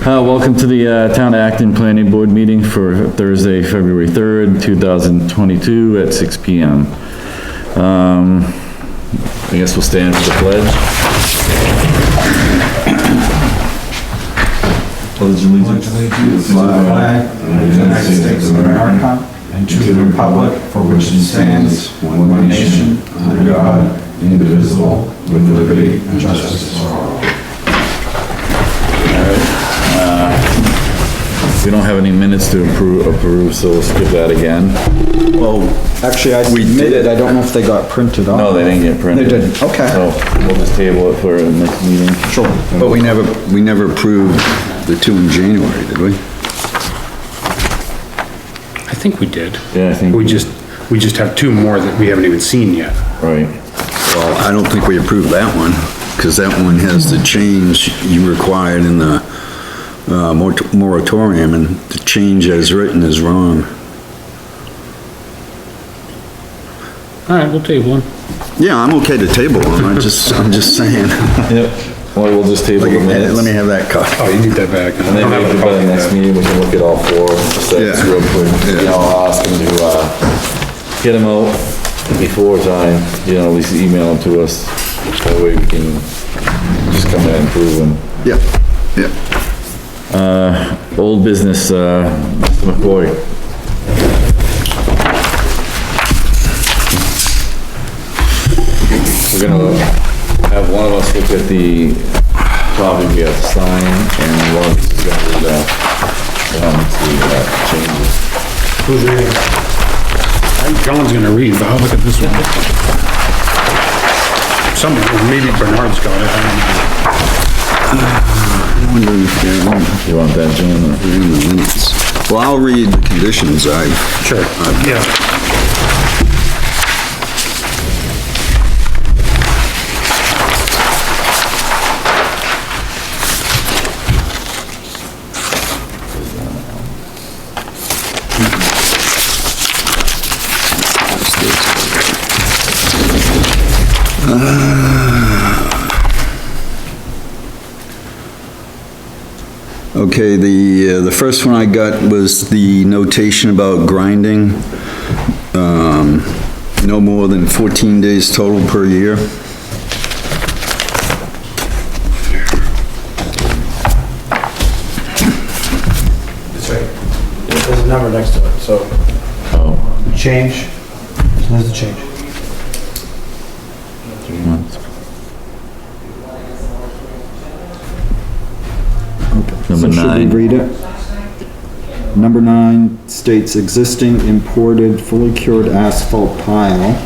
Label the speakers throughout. Speaker 1: Uh, welcome to the, uh, Town of Acton Planning Board meeting for Thursday, February 3rd, 2022 at 6 PM. Um, I guess we'll stand for the pledge. Pledge allegiance
Speaker 2: allegiance to the flag of the United States of America and to the republic for which it stands, one nation, under God, indivisible, with liberty and justice for all.
Speaker 1: We don't have any minutes to approve, approve, so we'll skip that again.
Speaker 3: Oh,
Speaker 2: Actually, I
Speaker 1: We did.
Speaker 2: submitted, I don't know if they got printed on.
Speaker 1: No, they didn't get printed.
Speaker 2: They didn't, okay.
Speaker 1: So we'll just table it for the next meeting.
Speaker 2: Sure.
Speaker 3: but we never, we never approved the two in January, did we?
Speaker 4: I think we did.
Speaker 1: Yeah, I think.
Speaker 4: We just, we just have two more that we haven't even seen yet.
Speaker 1: Right.
Speaker 3: Well, I don't think we approved that one, because that one has the change you required in the, uh, mor- moratorium, and the change as written is wrong.
Speaker 4: All right, we'll table one.
Speaker 3: Yeah, I'm okay to table them, I just, I'm just saying.
Speaker 1: Yep, well, we'll just table the minutes.
Speaker 3: uh, Let me have that cut.
Speaker 4: Oh, you need that back.
Speaker 1: And then maybe by the next meeting, we can look at all four sets
Speaker 3: Yeah.
Speaker 1: real quick. You
Speaker 3: Yeah.
Speaker 1: know, I'll ask them to, uh, get them out before time, you know, at least email them to us. That way we can just come in and prove them.
Speaker 3: Yep, yep.
Speaker 1: Old business, uh, Mr. McCoy. We're gonna have one of us look at the copy we have to sign, and one of us is gonna read out, um, the, uh, changes.
Speaker 4: John's gonna read, but I'll look at this one. Somebody, maybe Bernard's got it. I
Speaker 3: I wonder if they're in
Speaker 1: You want that, Jim? or-
Speaker 3: they're in the minutes. Well, I'll read the conditions I've
Speaker 4: don't know. Sure, yeah.
Speaker 3: Okay, the, uh, the first one I got was the notation about grinding. um, No more than 14 days total per year.
Speaker 5: That's right. There's a number next to it, so. Change, there's a change.
Speaker 1: Number
Speaker 2: Should
Speaker 1: nine,
Speaker 2: we read it? Number nine states existing imported fully cured asphalt pile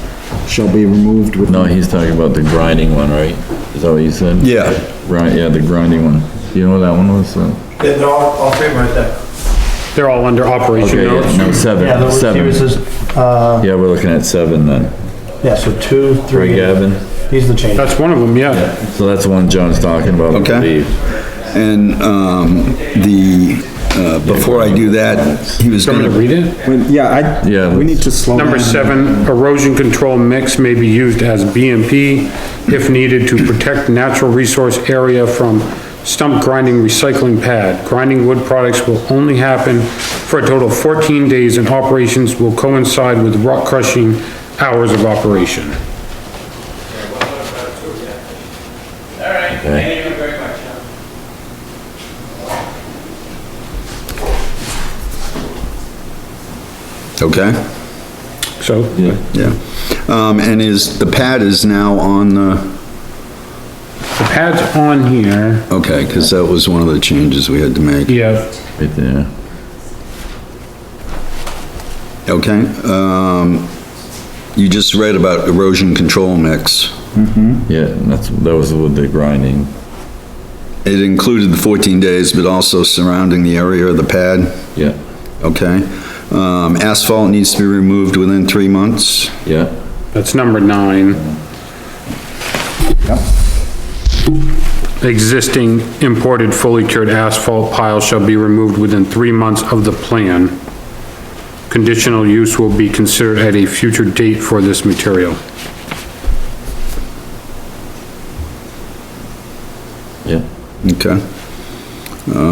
Speaker 2: shall be removed with.
Speaker 1: no, he's talking about the grinding one, right? Is that what you said?
Speaker 3: Yeah.
Speaker 1: Right, yeah, the grinding one. You know what that one was? Uh,
Speaker 5: Yeah, they're all, all three right there.
Speaker 4: They're all under operation
Speaker 1: Okay, yeah,
Speaker 4: notes.
Speaker 1: no,
Speaker 5: Yeah,
Speaker 1: seven,
Speaker 5: there was,
Speaker 1: seven.
Speaker 5: uh,
Speaker 1: Yeah, we're looking at seven then.
Speaker 5: yeah, so two,
Speaker 1: Right,
Speaker 5: three.
Speaker 1: Gavin?
Speaker 5: These are the changes.
Speaker 4: That's one of them, yeah.
Speaker 1: So that's the one John's talking about, I
Speaker 3: Okay.
Speaker 1: believe.
Speaker 3: And um, the, uh, before I do that, he was
Speaker 4: Do you want me to
Speaker 3: gonna,
Speaker 4: read it?
Speaker 2: When- Yeah, I,
Speaker 1: Yeah.
Speaker 2: we need to slow down.
Speaker 4: Number seven, erosion control mix may be used as BMP if needed to protect natural resource area from stump grinding recycling pad. Grinding wood products will only happen for a total of 14 days and operations will coincide with rock crushing hours of operation.
Speaker 1: Okay.
Speaker 3: okay?
Speaker 4: So, the
Speaker 3: Yeah. Um, And is, the pad is now on the,
Speaker 4: pad's on here,
Speaker 3: okay, because that was one of the changes we had to make.
Speaker 4: yeah,
Speaker 1: Right there.
Speaker 3: Okay? um, You just read about erosion control mix.
Speaker 1: Yeah, and that's, that was with the grinding.
Speaker 3: It included the 14 days, but also surrounding the area of the pad.
Speaker 1: Yeah,
Speaker 3: Okay. Um, asphalt needs to be removed within three months.
Speaker 1: yeah.
Speaker 4: that's number nine. Existing imported fully cured asphalt pile shall be removed within three months of the plan. Conditional use will be considered at a future date for this material.
Speaker 1: Yeah.
Speaker 3: Okay.